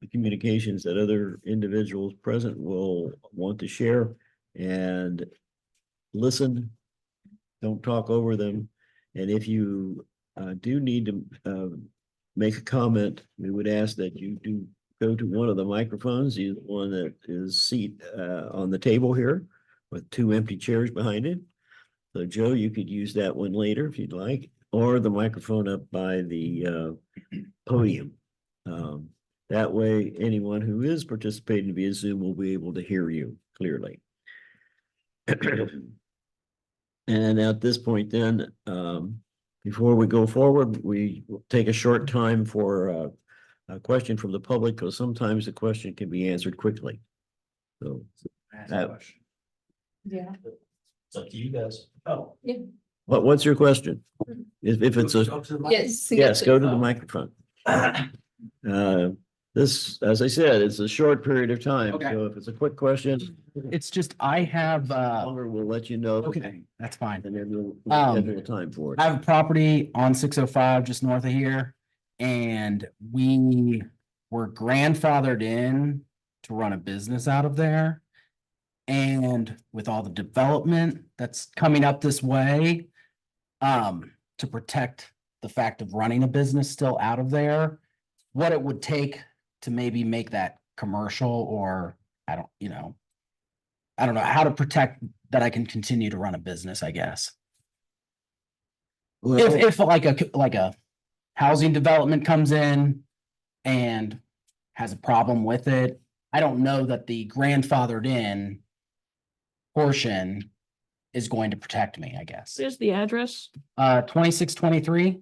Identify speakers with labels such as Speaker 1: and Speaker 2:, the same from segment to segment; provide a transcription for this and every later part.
Speaker 1: the communications that other individuals present will want to share and listen. Don't talk over them. And if you uh do need to um make a comment, we would ask that you do go to one of the microphones, the one that is seat uh on the table here with two empty chairs behind it. So Joe, you could use that one later if you'd like, or the microphone up by the uh podium. Um, that way, anyone who is participating via Zoom will be able to hear you clearly. And at this point then, um, before we go forward, we will take a short time for uh, a question from the public, because sometimes the question can be answered quickly. So, That-
Speaker 2: Yeah.
Speaker 3: It's up to you guys. Oh.
Speaker 1: what, what's your question? If, if it's a.
Speaker 2: Yes.
Speaker 1: Yes, go to the microphone. Uh, This, as I said, it's a short period of time,
Speaker 4: Okay.
Speaker 1: so if it's a quick question,
Speaker 4: It's just, I have, uh,
Speaker 1: longer, we'll let you know.
Speaker 4: okay, that's fine.
Speaker 1: And then we'll we'll
Speaker 4: Um,
Speaker 1: schedule a time for it.
Speaker 4: I have a property on six oh five just north of here. And we were grandfathered in to run a business out of there. And with all the development that's coming up this way. Um, to protect the fact of running a business still out of there. What it would take to maybe make that commercial or I don't, you know. I don't know how to protect that I can continue to run a business, I guess. If,
Speaker 1: Well,
Speaker 4: if like a, c- like a housing development comes in and has a problem with it, I don't know that the grandfathered in portion is going to protect me, I guess.
Speaker 2: There's the address.
Speaker 4: Uh, twenty-six, twenty-three?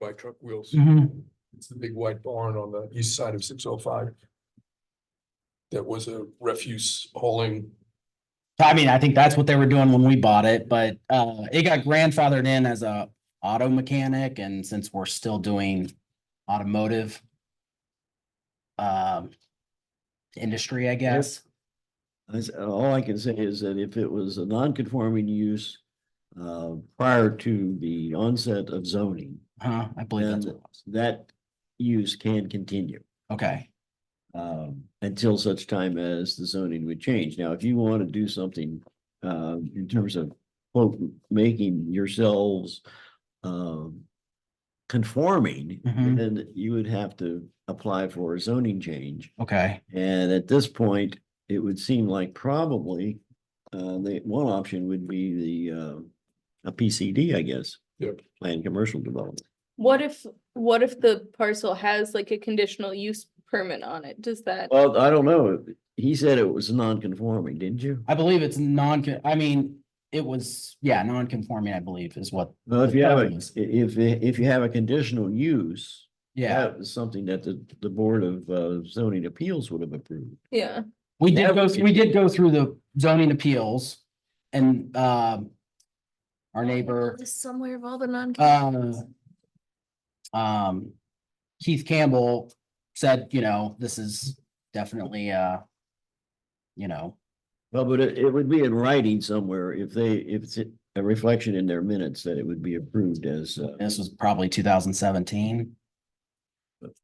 Speaker 5: by truck wheels.
Speaker 4: Mm-hmm.
Speaker 5: It's the big white barn on the east side of six oh five. That was a refuse hauling.
Speaker 4: I mean, I think that's what they were doing when we bought it, but, uh, it got grandfathered in as a auto mechanic and since we're still doing automotive um, industry, I guess.
Speaker 1: I s- All I can say is that if it was a non-conforming use uh, prior to the onset of zoning,
Speaker 4: Huh, I believe that's what it was.
Speaker 1: that use can continue.
Speaker 4: Okay,
Speaker 1: um, until such time as the zoning would change. Now, if you want to do something, uh, in terms of quote, making yourselves, um, conforming,
Speaker 4: Mhm.
Speaker 1: then you would have to apply for a zoning change.
Speaker 4: okay,
Speaker 1: And at this point, it would seem like probably, uh, the one option would be the, uh, a PCD, I guess.
Speaker 5: Yep.
Speaker 1: Planned commercial development.
Speaker 6: What if, what if the parcel has like a conditional use permit on it? Does that,
Speaker 1: Well, I don't know. He said it was non-conforming, didn't you?
Speaker 4: I believe it's non, I mean, it was, yeah, non-conforming, I believe is what,
Speaker 1: Well, if
Speaker 4: the
Speaker 1: you have a,
Speaker 4: prevalence.
Speaker 1: if, if you have a conditional use,
Speaker 4: yeah.
Speaker 1: that was something that the, the Board of uh, Zoning Appeals would have approved.
Speaker 6: yeah,
Speaker 4: We
Speaker 1: That
Speaker 4: did go,
Speaker 1: would
Speaker 4: we
Speaker 1: be-
Speaker 4: did go through the zoning appeals and, um, our neighbor,
Speaker 6: List somewhere of all the non.
Speaker 4: uh, um, Keith Campbell said, you know, this is definitely, uh, you know,
Speaker 1: Well, but it, it would be in writing somewhere if they, if it's a reflection in their minutes that it would be approved as, uh,
Speaker 4: this was probably two thousand seventeen.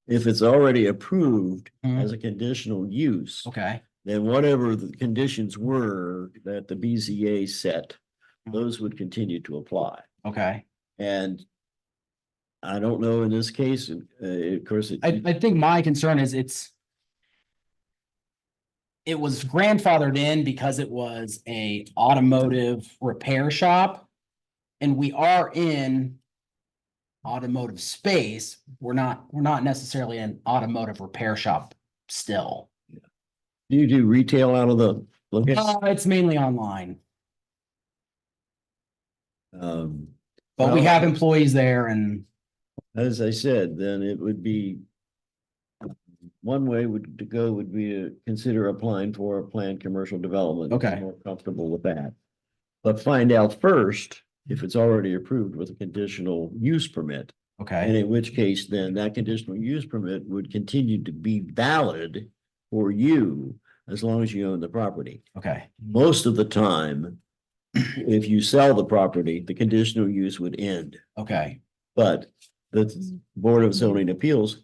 Speaker 1: if it's already approved as a conditional use,
Speaker 4: Hmm. Okay,
Speaker 1: then whatever the conditions were that the BZA set,
Speaker 4: Mhm.
Speaker 1: those would continue to apply.
Speaker 4: okay.
Speaker 1: And I don't know in this case, and, uh, of course. it-
Speaker 4: I, I think my concern is it's. It was grandfathered in because it was a automotive repair shop. And we are in. Automotive space, we're not, we're not necessarily an automotive repair shop still.
Speaker 1: Do you do retail out of the location?
Speaker 4: Uh, it's mainly online,
Speaker 1: Um,
Speaker 4: but we
Speaker 1: Well-
Speaker 4: have employees there and,
Speaker 1: as I said, then it would be. One way would to go would be to consider applying for a planned commercial development. if you're
Speaker 4: Okay.
Speaker 1: more Comfortable with that. But find out first if it's already approved with a conditional use permit. And
Speaker 4: okay,
Speaker 1: in which case, then that conditional use permit would continue to be valid for you as long as you own the property.
Speaker 4: okay,
Speaker 1: most of the time, if you sell the property, the conditional use would end.
Speaker 4: okay,
Speaker 1: But the Board of Zoning Appeals